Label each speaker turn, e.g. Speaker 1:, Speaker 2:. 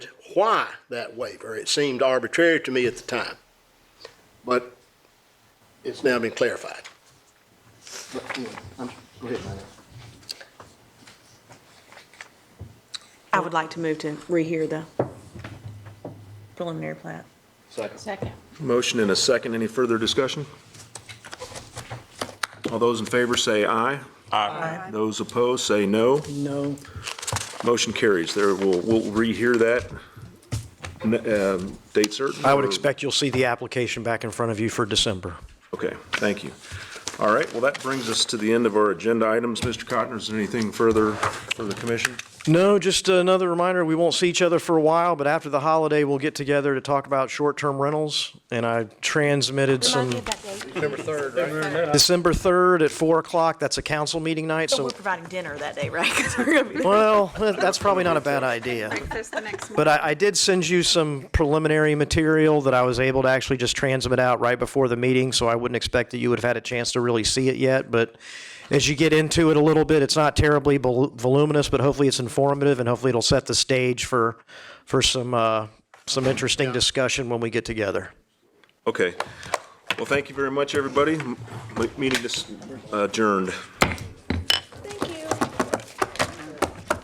Speaker 1: why that waiver. It seemed arbitrary to me at the time, but it's now been clarified. But, anyway, I'm- Go ahead, Lynette.
Speaker 2: I would like to move to rehear the preliminary plat.
Speaker 3: Second.
Speaker 4: Motion and a second. Any further discussion? All those in favor say aye. Aye. Those opposed say no.
Speaker 2: No.
Speaker 4: Motion carries. There, we'll, we'll rehear that, n- um, date certain.
Speaker 5: I would
Speaker 4: or-
Speaker 5: expect you'll see the application back in front of you for December.
Speaker 4: Okay, thank you. All right, well, that brings us to the end of our agenda items. Mr. Cotton, is there anything further for the commission?
Speaker 5: No, just another reminder, we won't see each other for a while, but after the holiday, we'll get together to talk about short-term rentals. And I transmitted some, December 3rd at 4 o'clock, that's a council meeting night,
Speaker 2: So
Speaker 5: so,
Speaker 2: we're providing dinner that day, right? 'Cause we're gonna be-
Speaker 5: well, that's probably not a bad idea.
Speaker 3: Breakfast the next
Speaker 5: But I, I did send you some preliminary material that I was able to actually just transmit out right before the meeting, so I wouldn't expect that you would have had a chance to really see it yet. But as you get into it a little bit, it's not terribly vol- voluminous, but hopefully it's informative and hopefully it'll set the stage for, for some, uh, some interesting discussion when we get together.
Speaker 4: Okay. Well, thank you very much, everybody. M- Meeting is adjourned.